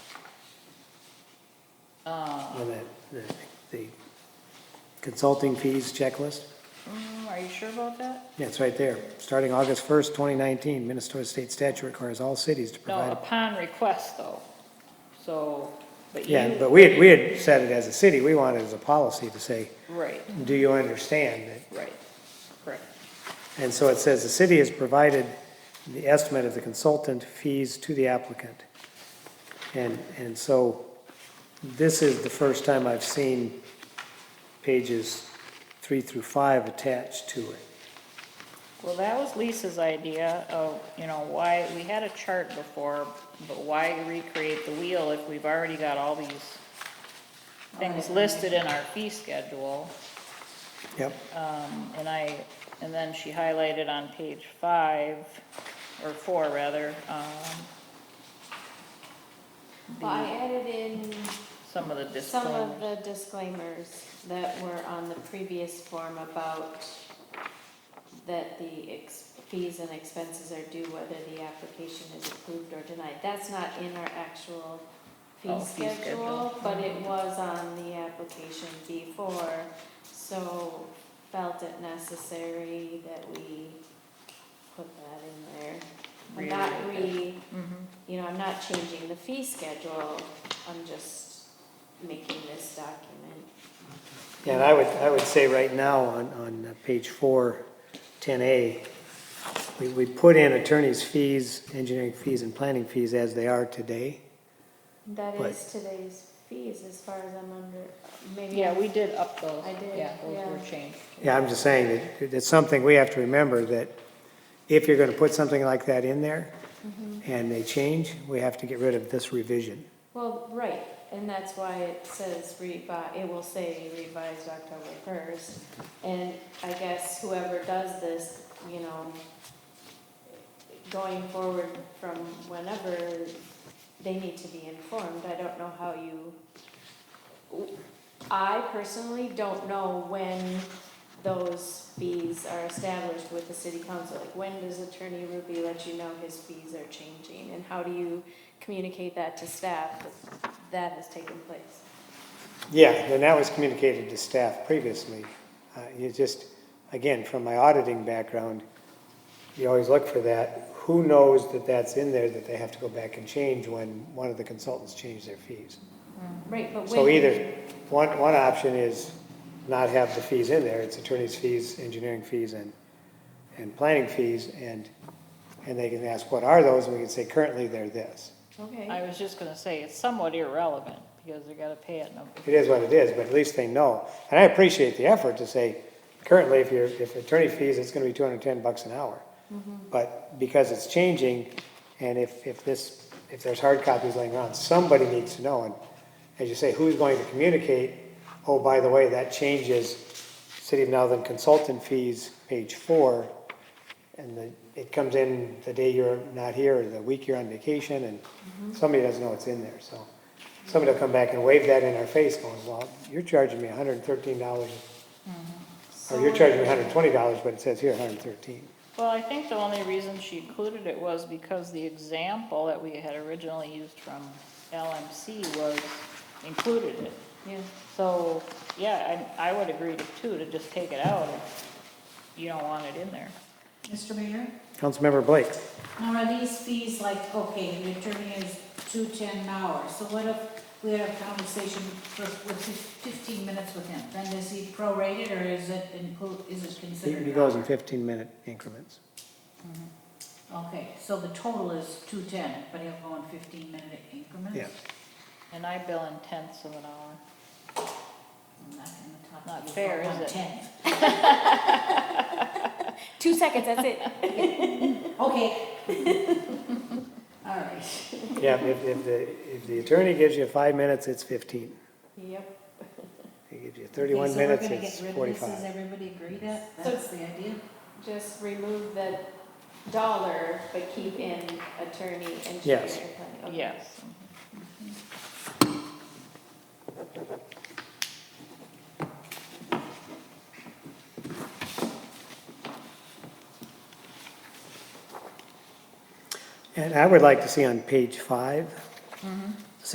Well, Oh, that, the- the consulting fees checklist, Mm, Are you sure about that? yeah, it's right there. Starting August 1st, 2019, Minnesota state statute requires all cities to No, provide. upon request though, so, but you. Yeah, but we had, we had said it as a city, we wanted as a policy to say, Right, do you understand that right, correct. And so it says, the city has provided the estimate of the consultant fees to the applicant. And, and so this is the first time I've seen pages three through five attached to it. Well, that was Lisa's idea of, you know, why, we had a chart before, but why recreate the wheel if we've already got all these things listed in our fee schedule? Yep, Um, and I, and then she highlighted on page five, or four rather, um, Well, I added in some of the some of disclaimers. the disclaimers that were on the previous form about that the ex- fees and expenses are due whether the application is approved or denied. That's not in our actual Oh, fee fee schedule, schedule. Mm-hmm. but it was on the application before, so felt it necessary that we put that in there. I'm not Rewrite re, Mhm. you know, I'm not changing the fee schedule, I'm just making this document. and I would, I would say right now on, on page four, 10A, we, we put in attorney's fees, engineering fees, and planning fees as they are today. That Right. is today's fees, as far as I'm under, maybe. Yeah, we did up those. I did, Yeah, those were yeah. changed. Yeah, I'm just saying that it's something we have to remember that if you're gonna put something like that in there and they change, we have to get rid of this revision. Well, right, and that's why it says revi, it will say revised October first. And I guess whoever does this, you know, going forward from whenever, they need to be informed. I don't know how you, I personally don't know when those fees are established with the city council. Like, when does Attorney Ruby let you know his fees are changing? And how do you communicate that to staff that that has taken place? Yeah, and that was communicated to staff previously. Uh, You just, again, from my auditing background, you always look for that. Who knows that that's in there, that they have to go back and change when one of the consultants changed their fees? Right, but when. So either, one, one option is not have the fees in there, it's attorney's fees, engineering fees, and, and planning fees, and, and they can ask, what are those, and we can say, currently they're this. Okay, I was just gonna say, it's somewhat irrelevant, because they gotta pay it, no, It is what it is, but at least they know, and I appreciate the effort to say, currently, if you're, if attorney fees, it's gonna be two hundred and ten bucks an hour. But because it's changing, and if, if this, if there's hard copies laying around, somebody needs to know, and as you say, who's going to communicate? Oh, by the way, that changes City of Nowland consultant fees, page four, and the, it comes in the day you're not here, or the week you're on vacation, and somebody doesn't know it's in there, so. Somebody will come back and wave that in our face, going, well, you're charging me hundred and thirteen dollars, so. or you're charging me hundred and twenty dollars, but it says here hundred and thirteen. Well, I think the only reason she included it was because the example that we had originally used from LMC was included it. Yeah, So, yeah, I, I would agree to two, to just take it out if you don't want it in there. Mr. Mayor, Councilmember Blake, now are these fees like, okay, the attorney is two ten an hour, so what if we had a conversation for, with fif- fifteen minutes with him? Then is he prorated or is it include, is it he considered? he goes in fifteen minute increments. Okay, so the total is two ten, but he'll go in fifteen minute increments? Yeah. And I bill in tenths of an hour. I'm not gonna Not talk to you fair, for is it? one ten. two seconds, that's it. Okay. All right. Yeah, if, if the, if the attorney gives you five minutes, it's fifteen. Yep. If He gives you Okay, thirty-one so we're minutes, gonna get it's rid of this. Does forty-five. everybody agree that, So- that's the idea? Just remove the dollar, but keep in attorney, engineer. Yes. planning. Okay. Yes. And I would like to see on page five,